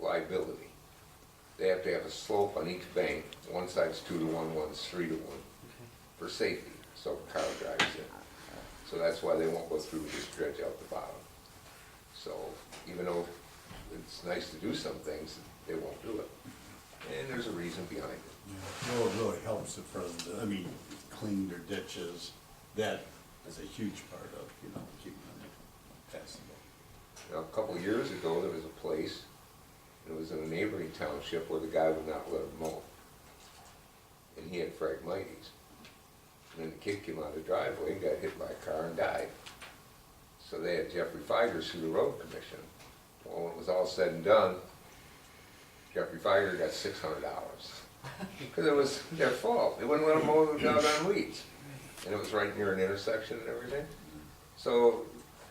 liability. They have to have a slope on each bank, one side's two to one, one's three to one, for safety, so a car drives in. So that's why they won't go through, just dredge out the bottom. So even though it's nice to do some things, they won't do it. And there's a reason behind it. Well, it really helps if, uh, I mean, clean their ditches, that is a huge part of, you know, keeping them passable. Now, a couple of years ago, there was a place, it was in a neighboring township where the guy would not let him mow. And he had phragmites. And then the kid came out of the driveway and got hit by a car and died. So they had Jeffrey Feiger sue the road commission. Well, when it was all said and done, Jeffrey Feiger got six hundred dollars. Because it was their fault. They wouldn't let him mow the doggone weeds. And it was right near an intersection and everything. So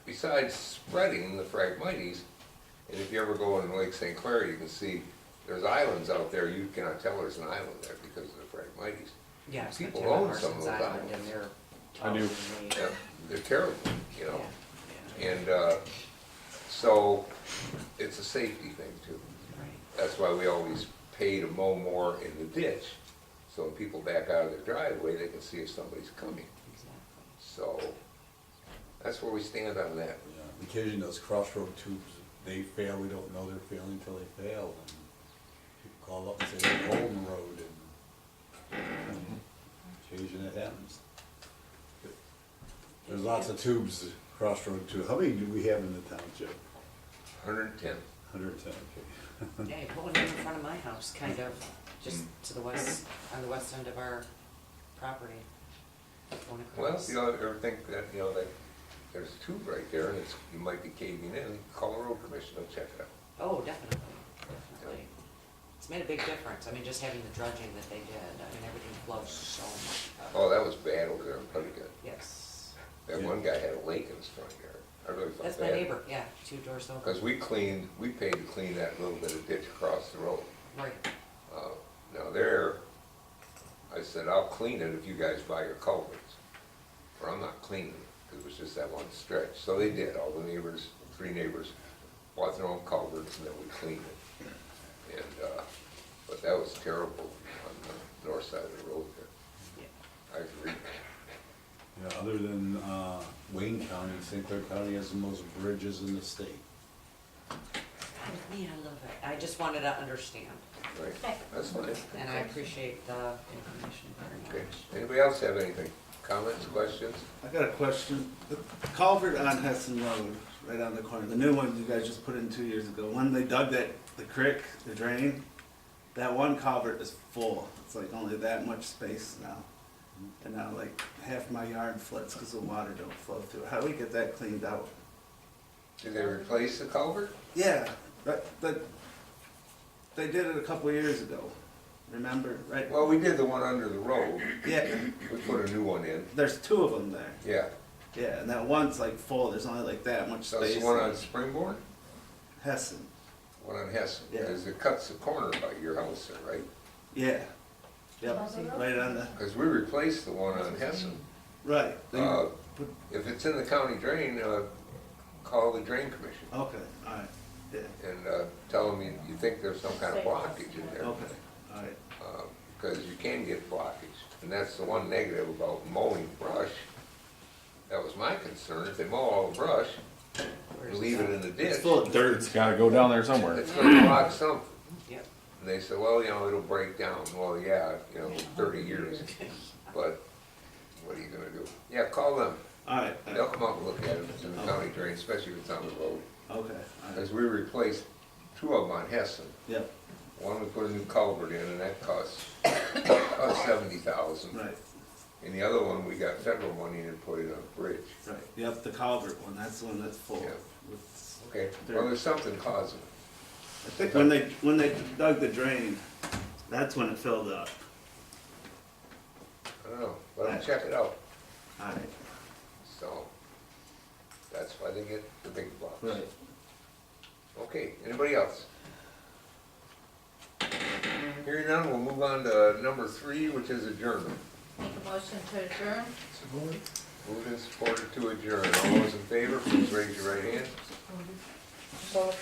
besides spreading the Phragmites, and if you ever go in Lake St. Clair, you can see there's islands out there. You cannot tell there's an island there because of the Phragmites. Yeah, it's People Tim own some of Larson's those Island islands. and they're. I do. totally- Yeah, They're terrible, you Yeah, know? yeah, And, uh, so it's a safety thing too. right. That's why we always pay to mow more in the ditch. So when people back out of their driveway, they can see if somebody's coming. Exactly. So that's where we stand on that. Yeah, Occasionally those crossroad tubes, they fail, we don't know they're failing until they fail, and people call up and say, "There's a hole in the road, and occasionally it happens. There's lots of tubes, crossroad tubes, how many do we have in the township? Hundred and ten. Hundred and ten, okay. Hey, put one in front of my house, kind of, just Mm. to the west, on the west end of our property. Going Well, across. you know, ever think that, you know, that there's a tube right there and it's, you might be caving in, call the road commission, they'll check it out. Oh, definitely, definitely. It's made a big difference. I mean, just having the dredging that they did, I mean, everything flowed so much. better. Oh, that was bad over there in Puttigat. Yes. That one guy had a lake in his front yard. I really felt bad. That's my neighbor, yeah, two doors over. Because we cleaned, we paid to clean that little bit of ditch across the road. Right, Uh, Now there, I said, I'll clean it if you guys buy your culverts. Or I'm not cleaning it, 'cause it was just that one stretch. So they did, all the neighbors, three neighbors bought their own culverts and then we cleaned it. And, uh, but that was terrible on the north side of the road there. yeah. I agree. Yeah, other than, uh, Wayne County, St. Clair County has the most bridges in the state. I mean, I love it. I just wanted to understand, Right, that's fine. and I appreciate the information very Okay, much. anybody else have anything? Comments, questions? I got a question. The culvert on Hudson Road, right on the corner, the new one you guys just put in two years ago, when they dug that, the creek, the drain, that one culvert is full. It's like only that much space now. And now like half my yard floods because the water don't flow through. How do we get that cleaned out? Did they replace the culvert? Yeah, but, but they did it a couple years ago, remember, right? Well, we did the one under the road. Yeah, We put a new one in. there's two of them there. Yeah, Yeah, and that one's like full, there's only like that much so it's space. the one on Springboard, Hessen, one on Hessen, Yeah. because it cuts the corner by your house there, right? yeah. Yep, Hudson Road? right on the, Because we replaced the one on Hessen. right. then you Uh, put- If it's in the county drain, uh, call the drain commission Okay, alright, yeah, and uh, tell them you- you think there's some kind of blockage in there. uh, okay, alright. Because you can get blockage, and that's the one negative about mowing brush. That was my concern, if they mow all the brush, Where's and leave it in the ditch, It's full of dirt. It's gotta go down there somewhere. it's gonna block something. Yep. And they said, well, you know, it'll break down. Well, yeah, you know, thirty years, but what are you gonna do? Yeah, call them. Alright, They'll okay, come out and look at it It's in the county drain, especially if it's on the road. alright, As we replaced two of them on Hessen, yep, one we put a new culvert in and that cost, cost seventy thousand. right, And the other one, we got federal money and put in a bridge. right, yep, the culvert one, that's the one that's full. Yeah. It's- Okay, well, there's something causing it. I think when they, when they dug the drain, that's when it filled up. I don't know, let them check it out. Alright, So, that's why they get the big bucks. right. Okay, anybody else? Hearing none, we'll move on to number three, which is adjournment. Make a motion to adjourn? Moved and supported to adjourn. All those in favor, please raise your right hand.